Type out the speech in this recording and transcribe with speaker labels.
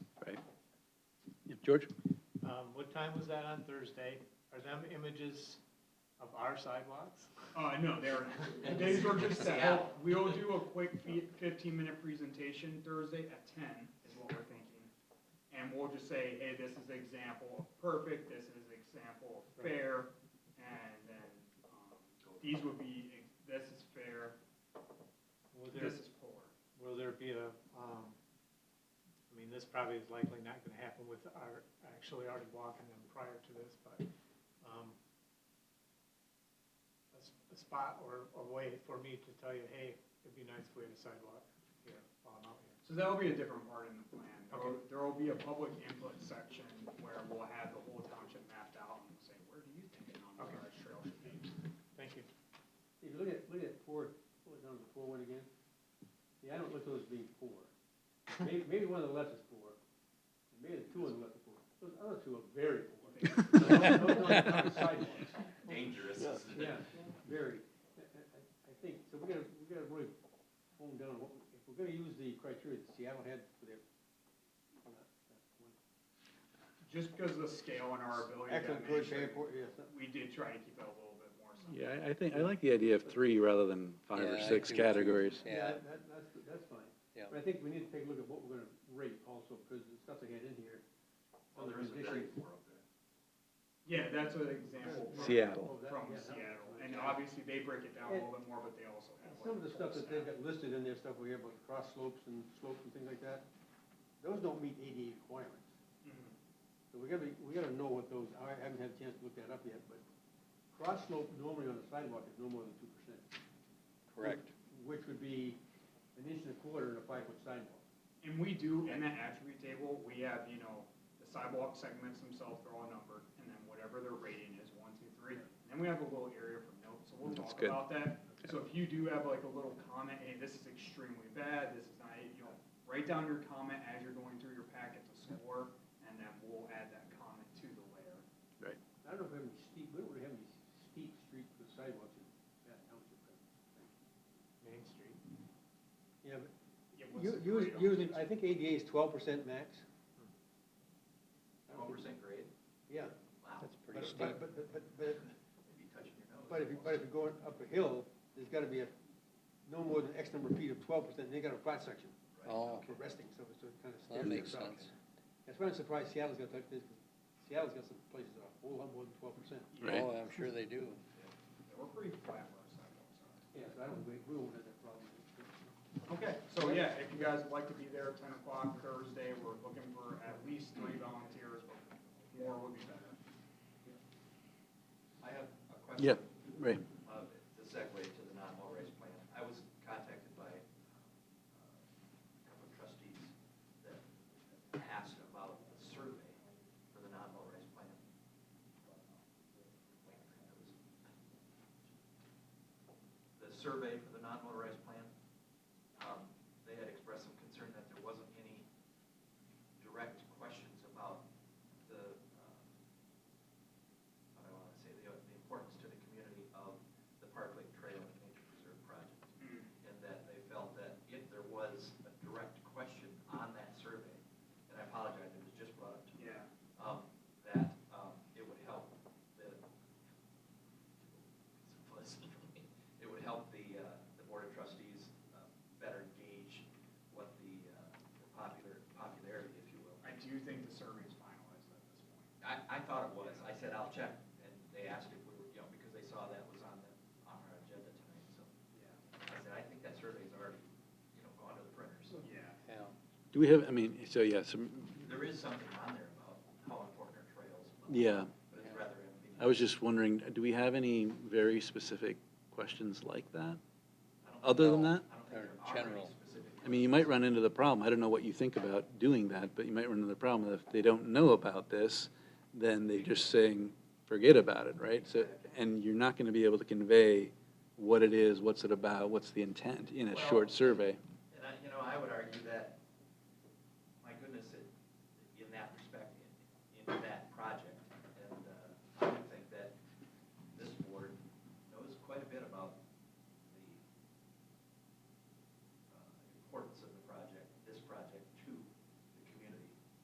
Speaker 1: George?
Speaker 2: Um, what time was that on Thursday? Are them images of our sidewalks?
Speaker 3: Uh, no, they were, they were just set up. We'll do a quick fifteen-minute presentation Thursday at ten is what we're thinking. And we'll just say, hey, this is example of perfect, this is example of fair, and then, um, these would be, ex- this is fair,
Speaker 2: Will there,
Speaker 3: this is poor.
Speaker 2: will there be a, um, I mean, this probably is likely not gonna happen with our, actually already walking them prior to this, but, um, a s- a spot or a way for me to tell you, hey, it'd be nice if we had a sidewalk here while I'm out here.
Speaker 3: So that'll be a different part in the plan. There'll-
Speaker 2: Okay.
Speaker 3: There'll be a public input section where we'll have the whole township mapped out and we'll say, where do you think an
Speaker 2: Okay.
Speaker 3: on-road trail should be?
Speaker 2: Thank you.
Speaker 4: If you look at, look at four, what was on the four one again? Yeah, I don't look at those being four. Maybe, maybe one on the left is four, and maybe the two on the left are four. Those other two are very poor. Those aren't- those aren't sidewalks.
Speaker 5: Dangerous, isn't it?
Speaker 4: Yeah, very. I, I- I think, so we gotta, we gotta really hone down what, we- if we're gonna use the criteria that Seattle had for their. uh, well, that- that's one
Speaker 3: Just because of the scale and our ability to
Speaker 4: Excellent, good,
Speaker 3: measure,
Speaker 4: very important, yes. that-
Speaker 3: we did try to keep it a little bit more simple.
Speaker 1: Yeah, I- I think, I like the idea of three rather than five
Speaker 6: Yeah,
Speaker 1: or
Speaker 6: I
Speaker 1: six
Speaker 6: do too.
Speaker 1: categories.
Speaker 6: Yeah,
Speaker 4: that, that's, that's fine.
Speaker 6: Yeah.
Speaker 4: But I think we need to take a look at what we're gonna rate also, because the stuff they had in here. on
Speaker 5: Well,
Speaker 4: the
Speaker 5: there is a
Speaker 4: condition-
Speaker 5: very poor up there.
Speaker 3: Yeah, that's an example. from-
Speaker 1: Seattle.
Speaker 4: Oh, that-
Speaker 3: From
Speaker 4: yeah, that-
Speaker 3: Seattle, and obviously they break it down a little bit more, but they also have. like,
Speaker 4: Some of the stuff that they've
Speaker 3: full
Speaker 4: got listed in their stuff we have, about cross slopes and slopes and things like that, those don't meet ADA requirements.
Speaker 3: staff. Mhm.
Speaker 5: Mm-hmm.
Speaker 4: So we gotta, be- we gotta know what those, are. I haven't had a chance to look that up yet, but cross slope normally on a sidewalk is no more than two percent.
Speaker 6: correct.
Speaker 4: Which would be an inch and a quarter in a five-foot sidewalk.
Speaker 3: And we do, in that attribute table, we have, you know, the sidewalk segments themselves, they're all numbered, and then whatever their rating is, one, two, three. And then we have a little area for notes, so we'll
Speaker 1: That's
Speaker 3: talk
Speaker 1: good.
Speaker 3: about that. So if you do have like a little comment, hey, this is extremely bad, this is not, it," you know, write down your comment as you're going through your packet to score, and then we'll add that comment to the layer.
Speaker 4: I don't know if we have any steep, we don't really have any steep street for sidewalks in that township.
Speaker 2: Main Street.
Speaker 4: Yeah, but
Speaker 3: It was
Speaker 4: you, you,
Speaker 3: great.
Speaker 4: usually, I think ADA is twelve percent max. I don't
Speaker 5: Twelve
Speaker 4: think-
Speaker 5: percent grade?
Speaker 4: Yeah.
Speaker 5: Wow.
Speaker 6: That's
Speaker 4: But,
Speaker 6: pretty steep.
Speaker 4: but, but, but, but,
Speaker 5: You'd be touching your nose.
Speaker 4: but if you, but if
Speaker 5: almost.
Speaker 4: you're going up a hill, there's gotta be a, no more than X number of feet of twelve percent, and they got a cross section
Speaker 6: Oh,
Speaker 4: for resting, so it's sort of kind of
Speaker 6: that
Speaker 4: stairs.
Speaker 6: makes
Speaker 4: that route.
Speaker 6: sense.
Speaker 4: That's why I'm surprised Seattle's got that, 'cause Seattle's got some places that are a whole lot more than twelve percent.
Speaker 1: Right.
Speaker 6: Oh, I'm sure they do.
Speaker 3: We're pretty flat where our sidewalks are.
Speaker 4: Yeah, so I don't, we, we won't have that problem.
Speaker 3: Okay, so yeah, if you guys would like to be there ten o'clock Thursday, we're looking for at least three volunteers, but more would be better.
Speaker 5: I have a
Speaker 1: Yeah,
Speaker 5: question.
Speaker 1: right.
Speaker 5: Uh, the segue to the non-haul race plan. I was contacted by uh, a couple of trustees that asked about the survey for the non-haul race plan. The survey for the non-motorized plan, um, they had expressed some concern that there wasn't any direct questions about the, uh, what I want to say, the, the importance to the community of the Park Lake Trail and Nature Preserve project.
Speaker 3: Hmm.
Speaker 5: And that they felt that if there was a direct question on that survey, and I apologize, it was just brought up to me,
Speaker 3: Yeah.
Speaker 5: um, that, um, it would help the, it would help the, uh, the Board of Trustees uh, better gauge what the, uh, the popular, popularity, if you will,
Speaker 3: I do think the survey is finalized at this point.
Speaker 5: I, I thought it was, I said, I'll check, and they asked if we were, you know, because they saw that was on the, on our agenda tonight, so. I said, I think that survey's already, you know, gone to the printer, so.
Speaker 3: Yeah.
Speaker 6: Yeah,
Speaker 1: Do we have, I mean, so yeah, some,
Speaker 5: There is something on there about how important our trails. are,
Speaker 1: yeah.
Speaker 5: But it's rather empty.
Speaker 1: I was just wondering, do we have any very specific questions like that?
Speaker 5: I don't
Speaker 1: Other than
Speaker 6: No.
Speaker 1: that?
Speaker 5: think- I don't
Speaker 6: They're
Speaker 5: think there are any
Speaker 6: general.
Speaker 5: specific.
Speaker 1: I mean, you might run into the problem, I don't know what you think about doing that, but you might run into the problem that if they don't know about this, then they're just saying, forget about it, right? So, and you're not gonna be able to convey what it is, what's it about, what's the intent in a
Speaker 5: Well-
Speaker 1: short survey.
Speaker 5: And I, you know, I would argue that uh, uh,